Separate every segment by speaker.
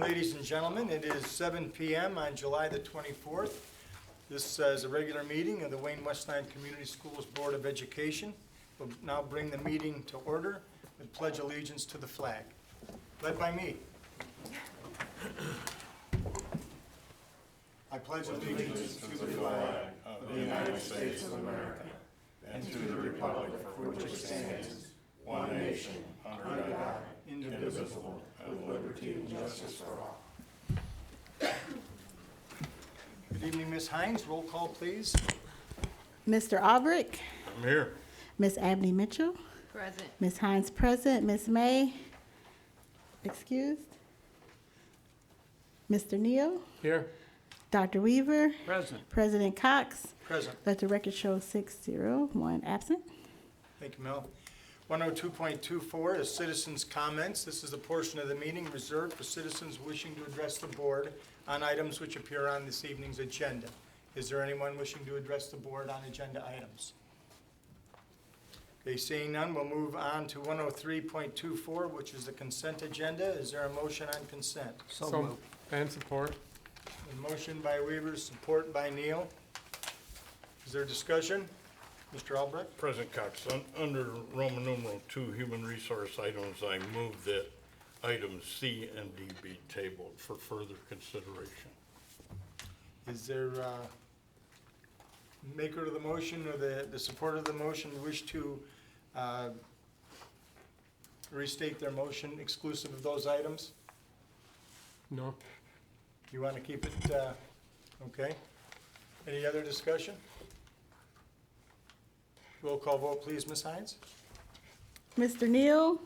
Speaker 1: Ladies and gentlemen, it is 7 PM on July the 24th. This uh, is a regular meeting of the Wayne Westland Community Schools Board of Education. We'll now bring the meeting to order and pledge allegiance to the flag, led by me. I pledge allegiance to the flag Good evening, Ms. Hines. Roll call, please.
Speaker 2: Mr. Albrecht,
Speaker 1: I'm here.
Speaker 2: Miss Abney Mitchell,
Speaker 3: Present.
Speaker 2: Miss Hines present, Miss May excused, Mr. Neal,
Speaker 4: Here.
Speaker 2: Dr. Weaver,
Speaker 4: Present.
Speaker 2: President Cox.
Speaker 1: Present.
Speaker 2: Let the record show six zero, one absent.
Speaker 1: Thank you, Mel. 102.24 is citizens' comments. This is a portion of the meeting reserved for citizens wishing to address the board on items which appear on this evening's agenda. Is there anyone wishing to address the board on agenda items? Okay, seeing none, we'll move on to 103.24, which is the consent agenda. Is there a motion on consent?
Speaker 4: So moved. And support.
Speaker 1: A motion by Weaver, support by Neal. Is there discussion? Mr. Albrecht?
Speaker 5: President Cox, un- under Roman numeral two, human resource items, I move that items C and D be tabled for further consideration.
Speaker 1: Is there uh maker of the motion or the, the supporter of the motion wish to uh, restate their motion exclusive of those items?
Speaker 4: No.
Speaker 1: You want to keep it, uh, okay? Any other discussion? Roll call vote, please, Ms. Hines?
Speaker 2: Mr. Neal,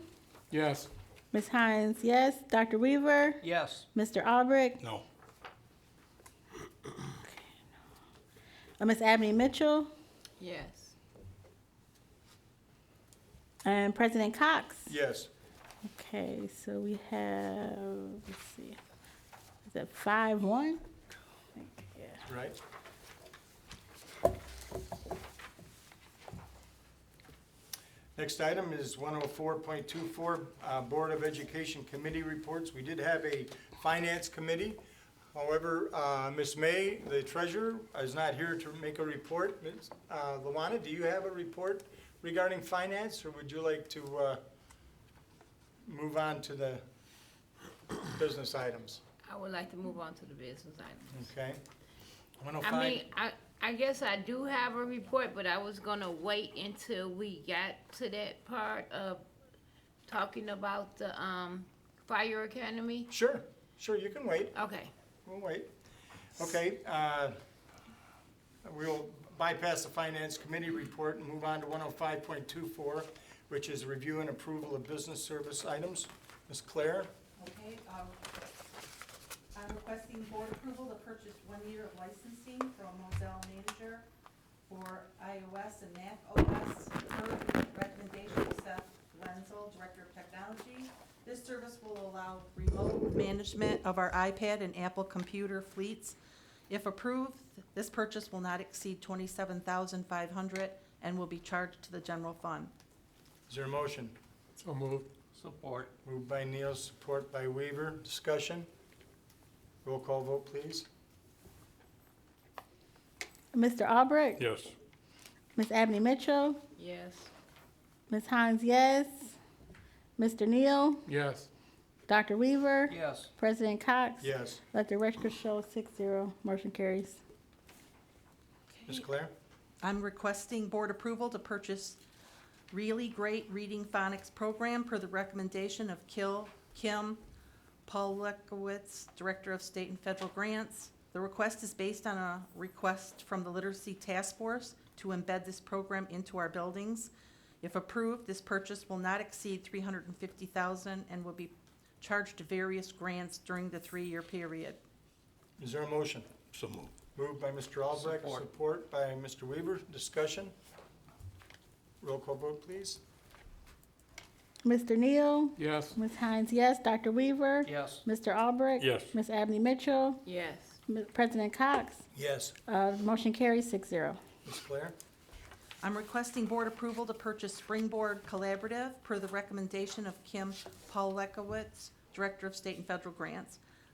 Speaker 4: Yes.
Speaker 2: Miss Hines, yes, Dr. Weaver,
Speaker 4: Yes.
Speaker 2: Mr. Albrecht,
Speaker 5: No.
Speaker 2: uh, Miss Abney Mitchell,
Speaker 3: Yes.
Speaker 2: and President Cox.
Speaker 1: Yes.
Speaker 2: Okay, so we have, let's see, is that five one? Yeah.
Speaker 1: Right? Next item is 104.24, uh, Board of Education Committee Reports. We did have a Finance Committee. However, uh, Ms. May, the treasurer, is not here to make a report. Ms. uh, Luana, do you have a report regarding finance, or would you like to uh, move on to the business items?
Speaker 3: I would like to move on to the business items.
Speaker 1: Okay? 105.
Speaker 3: I mean, I, I guess I do have a report, but I was gonna wait until we got to that part of talking about the, um, fire academy.
Speaker 1: Sure, sure, you can wait.
Speaker 3: Okay,
Speaker 1: We'll wait. Okay, uh, we'll bypass the Finance Committee report and move on to 105.24, which is review and approval of business service items. Ms. Claire?
Speaker 6: Okay, um, I'm requesting board approval to purchase one year of licensing from Moselle Manager for iOS and Mac OS per recommendation of Seth Wenzel, Director of Technology. This service will allow remote management of our iPad and Apple computer fleets. If approved, this purchase will not exceed twenty-seven thousand five hundred and will be charged to the general fund.
Speaker 1: Is there a motion?
Speaker 4: So moved. Support.
Speaker 1: Moved by Neal, support by Weaver. Discussion? Roll call vote, please.
Speaker 2: Mr. Albrecht,
Speaker 5: Yes.
Speaker 2: Miss Abney Mitchell,
Speaker 3: yes.
Speaker 2: Miss Hines, yes, Mr. Neal,
Speaker 4: Yes.
Speaker 2: Dr. Weaver,
Speaker 4: Yes.
Speaker 2: President Cox.
Speaker 1: Yes.
Speaker 2: Let the record show six zero, motion carries.
Speaker 1: Ms. Claire?
Speaker 6: I'm requesting board approval to purchase really great reading phonics program per the recommendation of Kil, Kim Paul Lekowitz, Director of State and Federal Grants. The request is based on a request from the Literacy Task Force to embed this program into our buildings. If approved, this purchase will not exceed three hundred and fifty thousand and will be charged to various grants during the three-year period.
Speaker 1: Is there a motion?
Speaker 5: So moved.
Speaker 1: Moved by Mr. Albrecht,
Speaker 4: Support.
Speaker 1: support by Mr. Weaver. Discussion? Roll call vote, please.
Speaker 2: Mr. Neal,
Speaker 4: Yes.
Speaker 2: Miss Hines, yes, Dr. Weaver,
Speaker 4: Yes.
Speaker 2: Mr. Albrecht.
Speaker 5: Yes.
Speaker 2: Miss Abney Mitchell,
Speaker 3: Yes.
Speaker 2: M- President Cox,
Speaker 1: Yes.
Speaker 2: uh, motion carries six zero.
Speaker 1: Ms. Claire?
Speaker 6: I'm requesting board approval to purchase Springboard Collaborative per the recommendation of Kim Paul Director of State and Federal Grants.